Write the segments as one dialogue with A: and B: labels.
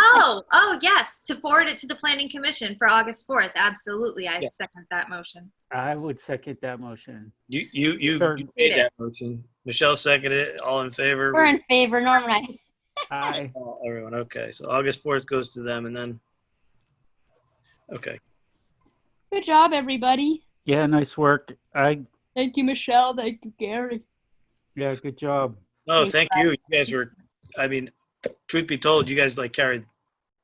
A: Oh, oh, yes, to forward it to the planning commission for August 4th. Absolutely. I
B: Yeah.
A: second that motion.
B: I would second that motion.
C: You, you, you
B: Third.
C: you made that motion. Michelle seconded it. All in favor?
D: We're in favor, Norm and I.
B: Aye.
C: Oh, Everyone, okay. So August 4th goes to them and then, okay.
D: Good job, everybody.
B: Yeah, nice work. I,
D: Thank you, Michelle. Thank you, Gary.
B: yeah, good job.
C: Oh,
D: Thanks,
C: thank you. You guys were, I mean, truth be told, you guys like carried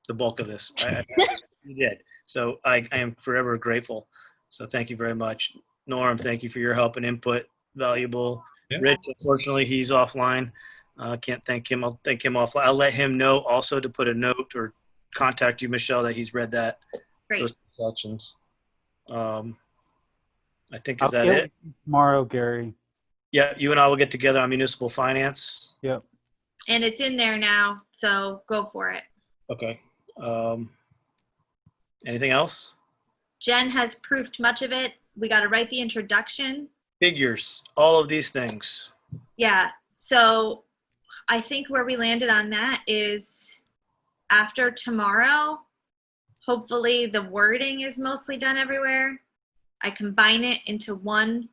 C: the bulk of this. I- I- You did. So I, I am forever grateful. So thank you very much. Norm, thank you for your help and input. Valuable.
E: Yeah.
C: Rich, unfortunately, he's offline. Uh, can't thank him. I'll thank him offline. I'll let him know also to put a note or contact you, Michelle, that he's read that.
A: Great.
C: Those sections. Um, I think,
B: I'll
C: is that
B: get
C: it?
B: Tomorrow, Gary.
C: Yeah, you and I will get together on municipal finance.
A: And it's in there now, so go for it.
C: Okay. Um, anything else?
A: Jen has proofed much of it. We got to write the introduction.
C: Figures, all of these things.
A: Yeah. So I think where we landed on that is after tomorrow, hopefully the wording is mostly done everywhere. I combine it into one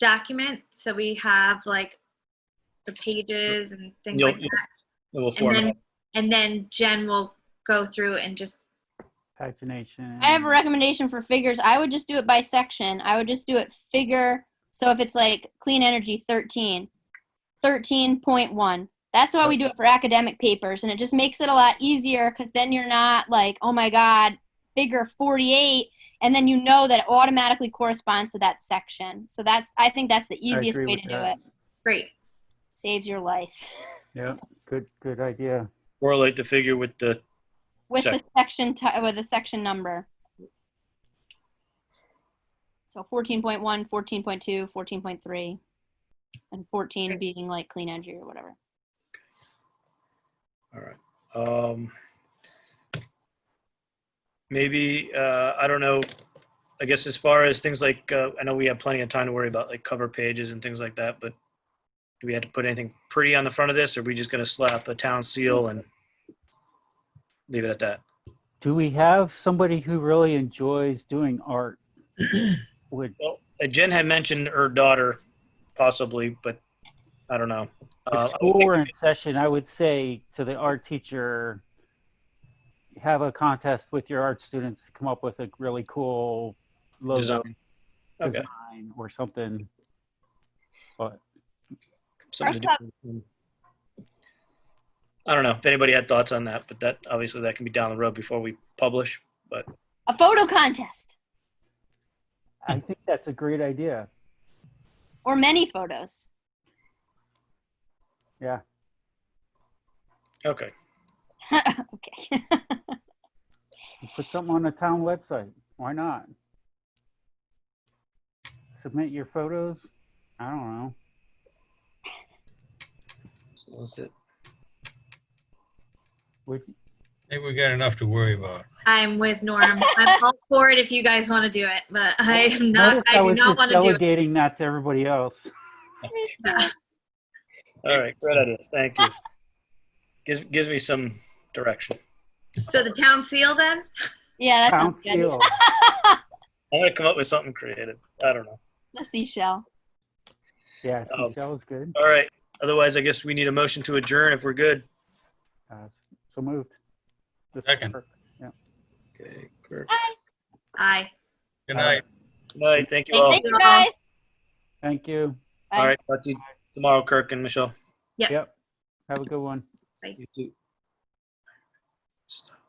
A: document so we have like the pages and things
C: You'll-
A: like that.
C: And we'll
A: And
C: format.
A: then, and then Jen will go through and just,
B: Pagination.
D: I have a recommendation for figures. I would just do it by section. I would just do it figure. So if it's like clean energy 13, 13.1. That's why we do it for academic papers. And it just makes it a lot easier because then you're not like, oh my God, figure 48. And then you know that it automatically corresponds to that section. So that's, I think that's the
B: I
D: easiest
B: agree
D: way
B: with
D: to do
B: that.
D: it.
A: great.
D: Saves your life.
B: Yeah, good, good idea.
C: Correlate the figure with the,
D: with the
C: Sec-
D: section ti with the section number. So 14.1, 14.2, 14.3, and 14 being like clean energy or whatever.
C: all right. Um, maybe, uh, I don't know. I guess as far as things like, uh, I know we have plenty of time to worry about like cover pages and things like that, but do we have to put anything pretty on the front of this? Or are we just going to slap a town seal and leave it at that?
B: Do we have somebody who really enjoys doing art? Would,
C: Well, uh, Jen had mentioned her daughter, possibly, but I don't know. Uh,
B: if
C: I
B: school
C: think-
B: were in session, I would say to the art teacher, have a contest with your art students to come up with a really cool logo
C: Design. um, Okay.
B: design or something. But
C: something to do. I don't know if anybody had thoughts on that, but that obviously that can be down the road before we publish.
D: A photo contest
C: Hmm.
B: I think that's a great idea.
D: or many photos.
C: Okay.
D: okay.
B: Put something on the town website. Why not? Submit your photos. I don't know.
C: So that's it.
B: Would,
E: I think we got enough to worry about.
A: I'm with Norm. I'm all for it if you guys want to do it, but I am
B: Notice
A: not, I do
B: was
A: not
B: just
A: want to do it.
B: delegating that to everybody else.
C: All right. Great ideas. Thank you. Gives, gives me some direction.
A: So the town seal then?
D: yeah, that sounds good.
B: Council.
C: I'm going to come up with something creative. I don't know.
D: The seashell.
B: Yeah,
C: Oh.
B: Michelle's good.
C: All right. Otherwise, I guess we need a motion to adjourn if we're good.
B: Uh, so moved. This-
E: Second.
C: Okay. Good
A: Aye.
E: Good night.
C: night. Thank you all.
D: Thank you guys.
B: Thank you.
D: Bye.
C: All right. Talk to you tomorrow, Kirk and Michelle.
A: Yep.
B: Yep. Have a good one.
C: You too. Stop.